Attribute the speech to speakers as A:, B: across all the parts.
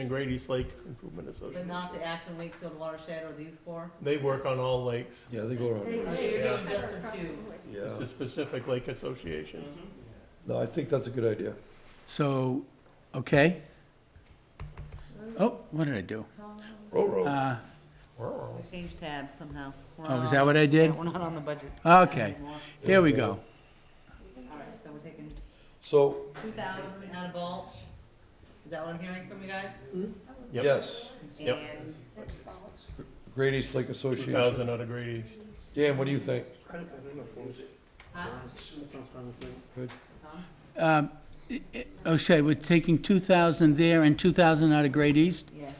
A: and Great East Lake Improvement
B: But
A: Association.
B: not the Acton Wakefield Watershed or the Youth Corps?
A: They work on all lakes.
C: Yeah, they go around. the
B: Oh,
C: world.
B: you're
A: Yeah.
B: doing just the two?
C: Yeah.
A: This is specific lake associations.
C: No, I think that's a good idea.
D: So, okay. Oh, what did I do?
C: Roro.
D: Uh,
B: We changed tabs somehow. We're
D: Oh, is
B: not-
D: that what I did?
B: Yeah, We're not on the budget.
D: Okay, there we
B: All
D: go.
B: right, so we're taking
C: So,
B: two thousand out of Balch. Is that what I'm hearing from you guys? Mm-hmm.
A: Yep.
C: yes,
A: Yep.
B: And
C: Great East Lake
A: Two
C: Association.
A: thousand out of Great East.
C: Dan, what do you think?
E: I I don't know if those-
B: Huh?
E: that sounds fine with me.
B: Tom?
D: Um, i- i- Okay, we're taking 2,000 there and 2,000 out of Great East?
B: Yes.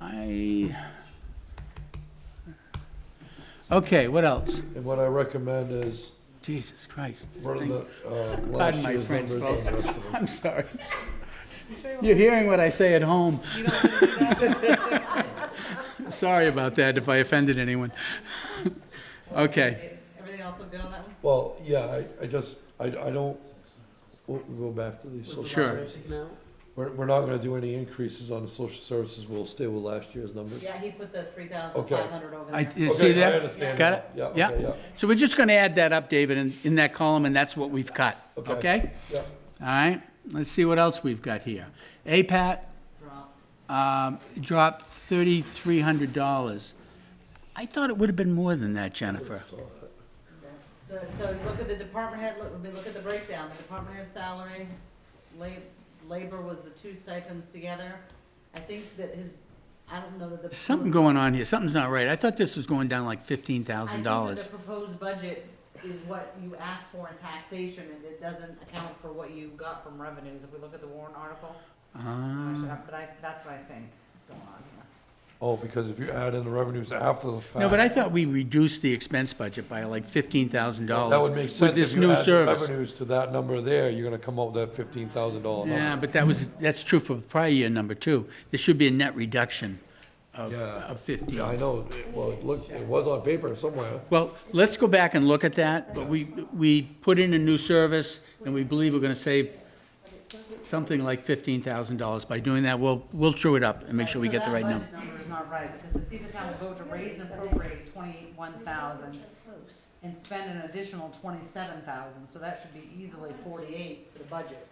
D: I... Okay, what else?
C: And what I recommend is
D: Jesus Christ.
C: run the, uh, last
D: Pardon my
C: year's
D: French,
C: numbers on
D: folks.
C: the rest of them.
D: I'm sorry. You're hearing what I say at home. Sorry about that if I offended anyone. Okay,
B: Everything else look good on that one?
C: Well, yeah, I, I just, I, I don't, we'll we'll go back to the social.
D: Sure.
C: services. We're, we're not gonna do any increases on the social services. We'll stay with last year's numbers.
B: Yeah, he put the three thousand five hundred over
D: I,
B: there.
D: you see
C: Okay, I
D: that?
C: understand.
D: Got
C: now.
D: it?
C: Yeah, okay,
D: Yeah.
C: yeah,
D: So we're just gonna add that up, David, in, in that column, and that's what we've cut,
C: Okay.
D: okay?
C: yeah.
D: All right, let's see what else we've got here. APAT,
B: Dropped.
D: um, dropped thirty-three hundred dollars. I thought it would have been more than that, Jennifer.
B: That's the- So you look at the department head, look, we look at the breakdown, the department head salary, la- labor was the two stipends together. I think that his, I don't know that the.
D: Something going on here, something's not right. I thought this was going down like fifteen thousand
B: I
D: dollars.
B: think that the proposed budget is what you asked for in taxation, and it doesn't account for what you got from revenues, if we look at the Warren article. I
D: Ah.
B: should have- But I, that's what I think is going on here.
C: Oh, because if you add in the revenues after the fact.
D: No, but I thought we reduced the expense budget by like fifteen thousand dollars.
C: That would make
D: With
C: sense
D: this
C: if you
D: new
C: add the
D: service.
C: revenues to that number there, you're gonna come up with that fifteen thousand dollar
D: Yeah,
C: number.
D: but that was, that's true for the prior year number two. There should be a net reduction of,
C: Yeah.
D: of
C: Yeah, I
D: fifteen.
C: know, well, it looked, it was on paper somewhere.
D: Well, let's go back and look at that, but we, we put in a new service, and we believe we're gonna save something like fifteen thousand dollars. By doing that, we'll, we'll true it up and make sure we get the right
B: So
D: number.
B: that budget number is not right, because the Seaton Town will go to raise and appropriate twenty-one thousand and spend an additional twenty-seven thousand, so that should be easily forty-eight for the budget.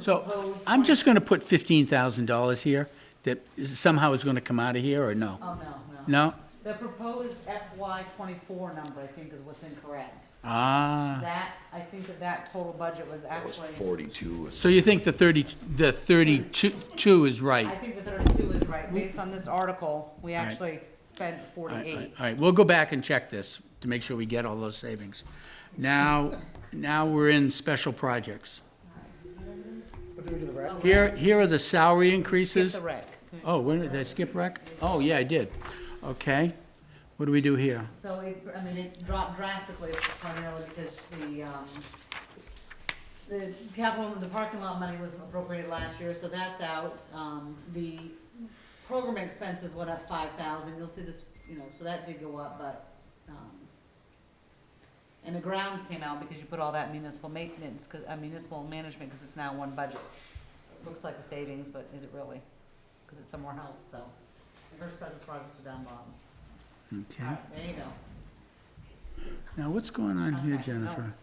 D: So, I'm just gonna put fifteen thousand dollars here, that is- somehow is gonna come out of here, or no?
B: Oh, no, no.
D: No?
B: The proposed FY twenty-four number, I think, is what's incorrect.
D: Ah.
B: That, I think that that total budget was actually,
D: So you think the thirty, the thirty-two two is right?
B: I think the thirty-two is right. Based on this article, we
D: right.
B: actually spent
D: All right, all
B: forty-eight.
D: right, all right, we'll go back and check this to make sure we get all those savings. Now, now we're in special projects. Here, here are the salary
B: Skip
D: increases.
B: the rec.
D: Oh, when, did I skip rec? Oh, yeah, I did. Okay. What do we do here?
B: So it, I mean, it dropped drastically primarily because the, um, the capital, the parking lot money was appropriated last year, so that's out. Um, the program expenses went up five thousand, you'll see this, you know, so that did go up, but, um, and the grounds came out because you put all that municipal maintenance, 'cause- uh, municipal management, cause it's now one budget. Looks like a savings, but is it really? Cause it's somewhere else, so. And Her special projects are down bottom.
D: Okay.
B: Alright, There you go.
D: Now, what's going on here,
B: Okay, Oh. no.
D: Jennifer?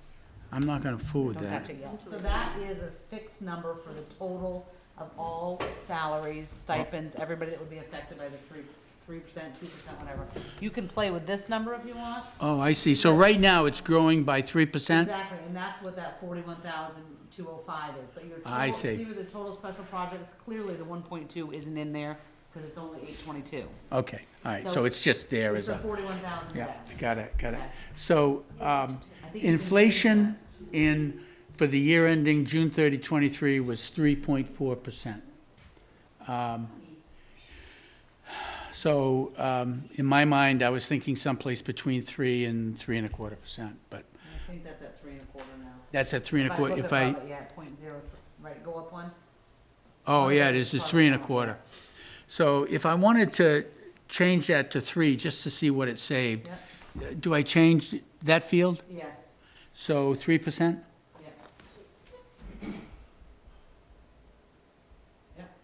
D: I'm not gonna fool with that.
B: So that is a fixed number for the total of all salaries, stipends, everybody that would be affected by the three, three percent, two percent, whatever. You can play with this number if you want.
D: Oh, I see. So right now, it's growing by three percent?
B: Exactly, and that's what that forty-one thousand, two oh five is, but your total.
D: I see.
B: See with the total special projects, clearly the one point two isn't in there, cause it's only eight twenty-two.
D: Okay, all right,
B: So-
D: so it's just there as
B: It's
D: a.
B: a forty-one thousand
D: Yeah,
B: debt.
D: got it, got it. So, um,
B: I think you can-
D: inflation in, for the year ending June 30, 23 was 3.4%. Um, So, um, in my mind, I was thinking someplace between 3 and 3 and a quarter percent, but
B: I think that's at three and a quarter now.
D: that's at 3 and a quarter,
B: look
D: if I,
B: above it, Yeah, point zero, th- right, go up one.
D: oh,
B: Okay.
D: yeah, it is, it's 3 and a quarter. So if I wanted to change that to 3, just to see what it saved,
B: Yeah.
D: do I change that field?
B: Yes,
D: So 3%?